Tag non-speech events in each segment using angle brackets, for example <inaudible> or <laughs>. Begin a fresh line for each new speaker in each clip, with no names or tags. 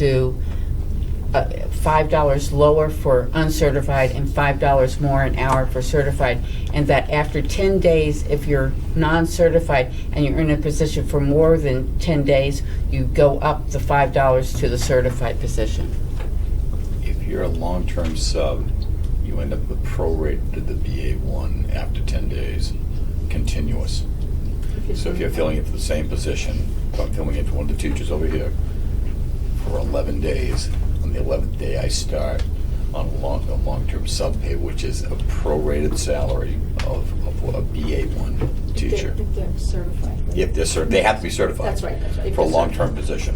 do uh, $5 lower for uncertified and $5 more an hour for certified, and that after 10 days, if you're non-certified and you're in a position for more than 10 days, you go up the $5 to the certified position.
If you're a long-term sub, you end up with prorated to the BA one after ten days, continuous. So if you're filling it for the same position, if I'm filling it for one of the teachers over here for eleven days, on the eleventh day I start on a long, a long-term sub pay, which is a prorated salary of, of a BA one
If they're-
teacher.
If they're certified. right?
If they're cert, they have to be certified.
That's right, that's right. If
For a
they're
long-term position.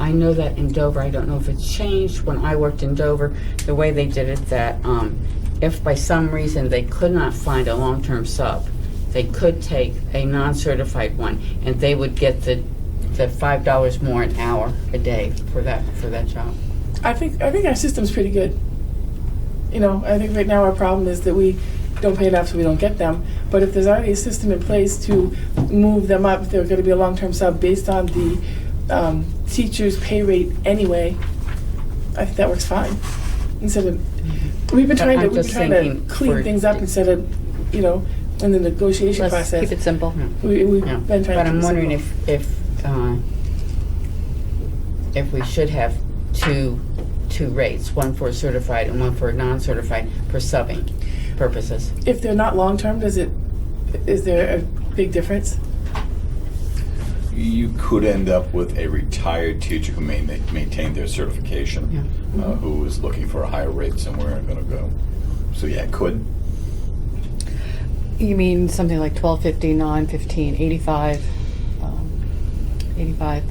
I know that in Dover, I don't know if it's changed, when I worked in Dover, the way they did it, that um, if by some reason they could not find a long-term sub, they could take a non-certified one, and they would get the, the five dollars more an hour a day for that, for that job.
I think I think our system's pretty good. You know, I think right now our problem is that we don't pay enough, so we don't get them. But if there's already a system in place to move them up, if they're going to be a long-term sub based on the um, teacher's pay rate anyway. I think that works fine. Instead of we've been trying to
Mm-hmm. I'm
we've been
just
trying
thinking
to clean
for-
things up instead of you know in the negotiation
Let's
process.
keep it simple.
we, we've
Yeah.
been trying.
But
to keep
I'm
it
wondering
simple.
if, if, uh, if we should have two, two rates, one for certified and one for non-certified for subbing purposes.
if they're not long-term, does it is there a big difference?
you could end up with a retired teacher who may ma- maintain their
Yeah.
certification, uh,
Mm-hmm.
who is looking for a higher rate somewhere and gonna go. So yeah, it could.
You mean something like 1250, 915, 85, um, 85.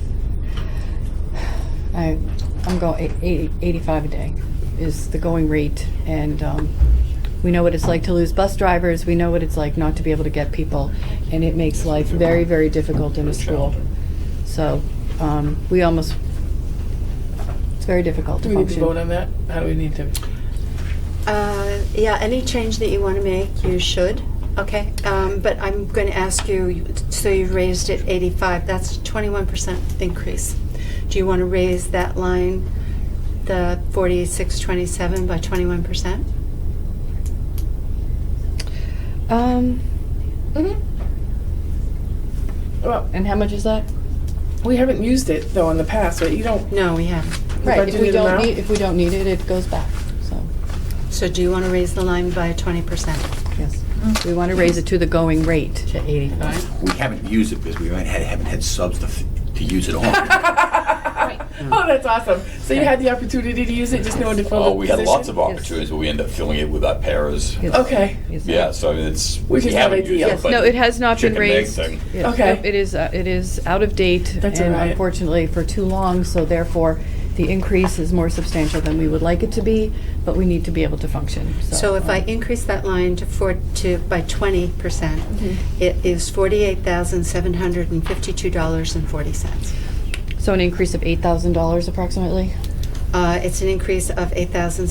I, I'm going, 80, 85 a day is the going rate. And um, we know what it's like to lose bus drivers. We know what it's like not to be able to get people. And it makes life very, very difficult in a school. So um, we almost, it's very difficult
Do
to
we need to
function.
vote on that? How do we need to?
Uh, Yeah, any change that you want to make, you should, okay? Um, But I'm going to ask you, so you raised it 85, that's a 21% increase. Do you want to raise that line, the 4627 by 21%?
Um,
Well,
And how much is that?
we haven't used it though in the past, right? You don't.
No, we
the
haven't.
Right, if we
budgeted
don't
amount?
need, if we don't need it, it goes back, so,
So do you want to raise the line by 20%?
yes. We want to raise it to the going rate.
To 85?
We haven't used it because we haven't had, haven't had subs to, f- to use it
<laughs>
on.
Oh, that's awesome! So you had the opportunity to use it, just no one to fill the
Oh, we had
position?
lots of opportunities, but we end up filling it with our paras.
Okay,
Is that-
Yeah, so I mean, it's.
Which
we
is not
haven't used
ideal.
it,
Yes,
but
No, it has not been
chicken and egg
raised.
thing.
It-
Okay.
nope, It is, uh, it is out of date.
That's all
And
right.
unfortunately, for too long, so therefore, the increase is more substantial than we would like it to be, but we need to be able to function, so.
So if I
um,
increase that line to four, to, by 20%, it is $48,752.40.
So an increase of eight thousand dollars approximately?
Uh, It's an increase of $8,752.40.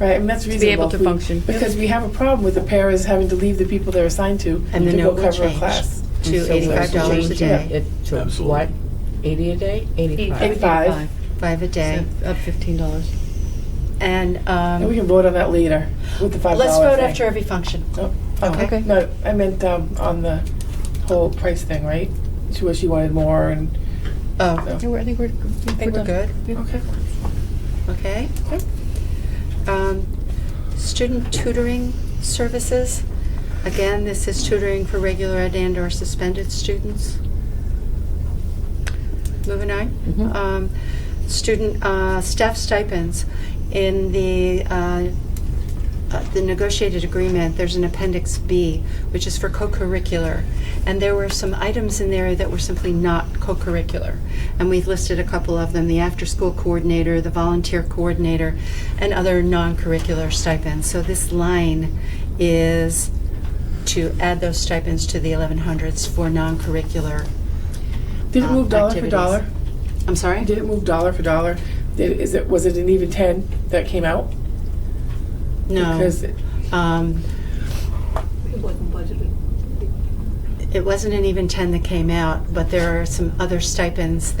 right, and that's
be
reasonable.
able to
if we-
function.
Because we have a problem with the paras having to leave the people they're assigned to
And
to
then it
go
will
cover a
change
class.
to
So we should
$85 a
change
day,
It to
Absolutely.
what? 80 a day? 85.
Eighty-five,
five a day.
so Up fifteen dollars.
And
and we
um,
can vote on that later with the five dollar.
let's vote after every function.
Oh,
Okay.
No, I meant um, on the whole price thing, right? She wish she wanted more, and
Oh,
No.
I think we're, I
I think we're good,
okay.
okay? Um, Student tutoring services, again, this is tutoring for regular ed and or suspended students. Moving
Mm-hmm.
on. Um, Student uh, staff stipends, in the uh, uh, the negotiated agreement, there's an Appendix B, which is for co-curricular. And there were some items in there that were simply not co-curricular. And we've listed a couple of them, the after-school coordinator, the volunteer coordinator, and other non-curricular stipends. So this line is to add those stipends to the 1100s for non-curricular,
Did it
Um,
move dollar for
activities.
dollar?
I'm sorry?
Did it move dollar for dollar? Did, is it was it an even ten that came out?
No.
Because it-
Um,
It wasn't budgeted.
it- it wasn't an even 10 that came out, but there are some other stipends